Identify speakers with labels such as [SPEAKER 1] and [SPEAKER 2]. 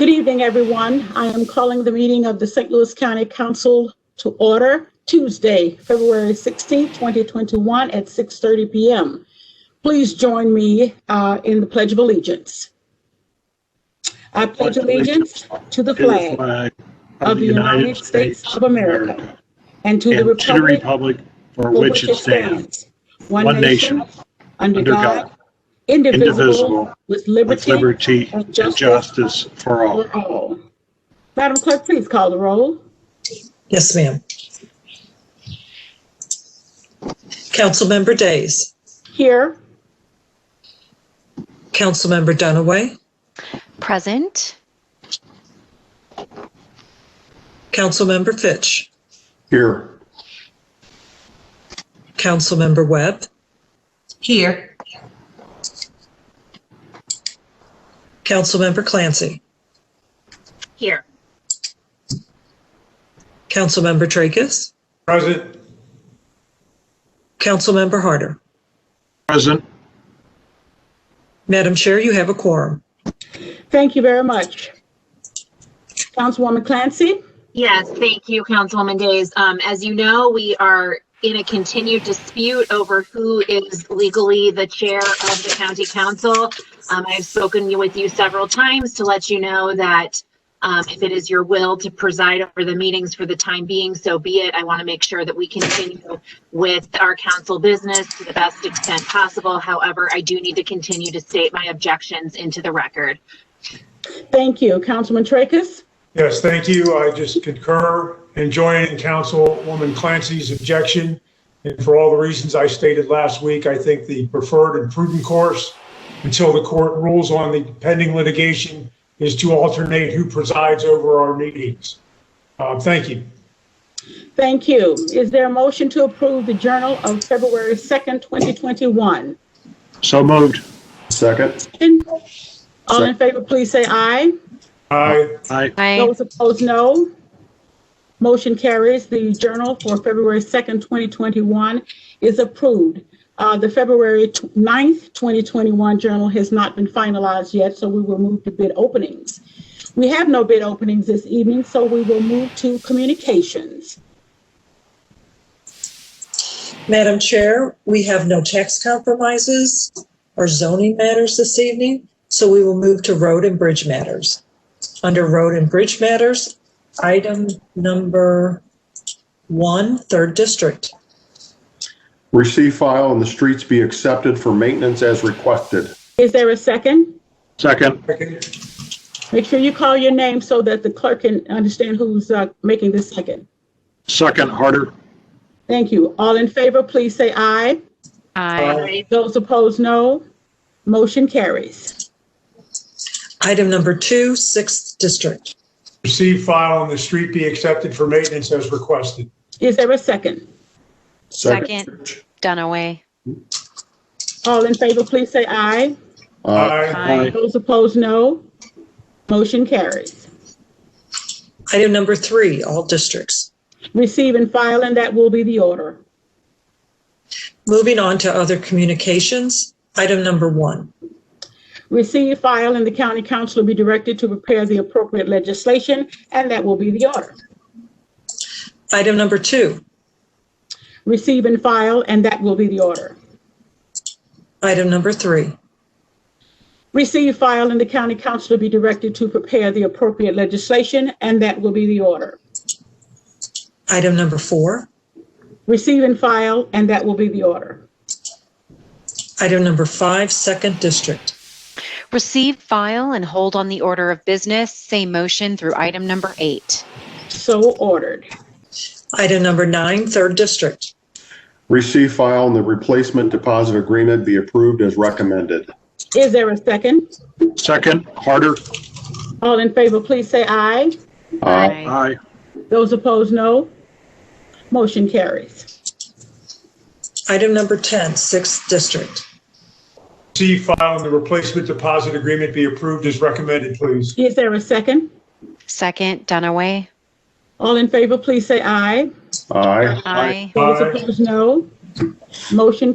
[SPEAKER 1] evening, everyone. I am calling the meeting of the St. Louis County Council to order Tuesday, February 16, 2021 at 6:30 PM. Please join me uh, in the Pledge of Allegiance. I pledge allegiance to the
[SPEAKER 2] to the
[SPEAKER 1] flag
[SPEAKER 2] flag
[SPEAKER 1] of the United States of America and to the
[SPEAKER 2] and to the
[SPEAKER 1] republic
[SPEAKER 2] republic for
[SPEAKER 1] for
[SPEAKER 2] which it stands,
[SPEAKER 1] one nation, under
[SPEAKER 2] under
[SPEAKER 1] God,
[SPEAKER 2] God,
[SPEAKER 1] indivisible,
[SPEAKER 2] indivisible,
[SPEAKER 1] with
[SPEAKER 2] with
[SPEAKER 1] liberty
[SPEAKER 2] liberty
[SPEAKER 1] and
[SPEAKER 2] and
[SPEAKER 1] justice
[SPEAKER 2] justice for all.
[SPEAKER 1] for all. Madam Clerk, please call the roll.
[SPEAKER 3] Yes, ma'am. Councilmember Days,
[SPEAKER 1] Here.
[SPEAKER 3] Councilmember Dunaway,
[SPEAKER 4] Present.
[SPEAKER 3] Councilmember Fitch,
[SPEAKER 2] Here.
[SPEAKER 3] Councilmember Webb,
[SPEAKER 5] Here,
[SPEAKER 3] Councilmember Clancy,
[SPEAKER 4] Here.
[SPEAKER 3] Councilmember Tracus,
[SPEAKER 6] Present.
[SPEAKER 3] Councilmember Harder.
[SPEAKER 2] Present.
[SPEAKER 3] Madam Chair, you have a quorum.
[SPEAKER 1] Thank you very much. Councilwoman Clancy?
[SPEAKER 7] Yes, thank you, Councilwoman Days. Um, as you know, we are in a continued dispute over who is legally the chair of the county council. Um, I've spoken with you several times to let you know that um, if it is your will to preside over the meetings for the time being, so be it. I want to make sure that we continue with our council business to the best extent possible. However, I do need to continue to state my objections into the record.
[SPEAKER 1] Thank you. Councilman Tracus?
[SPEAKER 6] Yes, thank you. I just concur and join in Councilwoman Clancy's objection. And for all the reasons I stated last week, I think the preferred and prudent course until the court rules on the pending litigation is to alternate who presides over our meetings. Uh, Thank you.
[SPEAKER 1] Thank you. Is there a motion to approve the Journal of February 2nd, 2021?
[SPEAKER 2] So moved.
[SPEAKER 8] Second.
[SPEAKER 1] All in favor, please say aye.
[SPEAKER 6] Aye.
[SPEAKER 2] Aye.
[SPEAKER 4] I
[SPEAKER 1] Those opposed, no. Motion carries. The Journal for February 2nd, 2021 is approved. Uh, The February tw- 9th, 2021 Journal has not been finalized yet, so we will move to bid openings. We have no bid openings this evening, so we will move to communications.
[SPEAKER 3] Madam Chair, we have no tax compromises or zoning matters this evening, so we will move to road and bridge matters. Under road and bridge matters, item number one, third district.
[SPEAKER 8] Receive file and the streets be accepted for maintenance as requested.
[SPEAKER 1] Is there a second?
[SPEAKER 2] Second.
[SPEAKER 6] Second.
[SPEAKER 1] Make sure you call your name so that the clerk can understand who's uh, making the second.
[SPEAKER 2] Second harder.
[SPEAKER 1] Thank you. All in favor, please say aye.
[SPEAKER 4] I
[SPEAKER 1] Those opposed, no. Motion carries.
[SPEAKER 3] Item number two, sixth district.
[SPEAKER 6] Receive, file, and the street be accepted for maintenance as requested.
[SPEAKER 1] Is there a second?
[SPEAKER 4] Second. Dunaway.
[SPEAKER 1] All in favor, please say aye.
[SPEAKER 8] Uh,
[SPEAKER 6] Aye.
[SPEAKER 2] Aye.
[SPEAKER 1] Those opposed, no. Motion carries.
[SPEAKER 3] Item number three, all districts.
[SPEAKER 1] Receive and file, and that will be the order.
[SPEAKER 3] Moving on to other communications, item number one.
[SPEAKER 1] Receive, file, and the county council will be directed to prepare the appropriate legislation, and that will be the order.
[SPEAKER 3] Item number two,
[SPEAKER 1] Receive and file, and that will be the order.
[SPEAKER 3] item number three,
[SPEAKER 1] Receive, file, and the county council will be directed to prepare the appropriate legislation, and that will be the order.
[SPEAKER 3] item number four,
[SPEAKER 1] Receive and file, and that will be the order.
[SPEAKER 3] item number five, second district.
[SPEAKER 4] Receive, file, and hold on the order of business. Same motion through item number eight.
[SPEAKER 1] So ordered.
[SPEAKER 3] Item number nine, third district.
[SPEAKER 8] Receive file and the replacement deposit agreement be approved as recommended.
[SPEAKER 1] Is there a second?
[SPEAKER 2] Second harder.
[SPEAKER 1] All in favor, please say aye.
[SPEAKER 8] Uh,
[SPEAKER 2] Aye.
[SPEAKER 1] Those opposed, no. Motion carries.
[SPEAKER 3] Item number 10, sixth district.
[SPEAKER 6] Receive, file, and the replacement deposit agreement be approved as recommended, please.
[SPEAKER 1] Is there a second?
[SPEAKER 4] Second, Dunaway.
[SPEAKER 1] All in favor, please say aye.
[SPEAKER 8] Uh, Aye.
[SPEAKER 4] I
[SPEAKER 1] Those
[SPEAKER 6] Aye.
[SPEAKER 1] opposed, no. Motion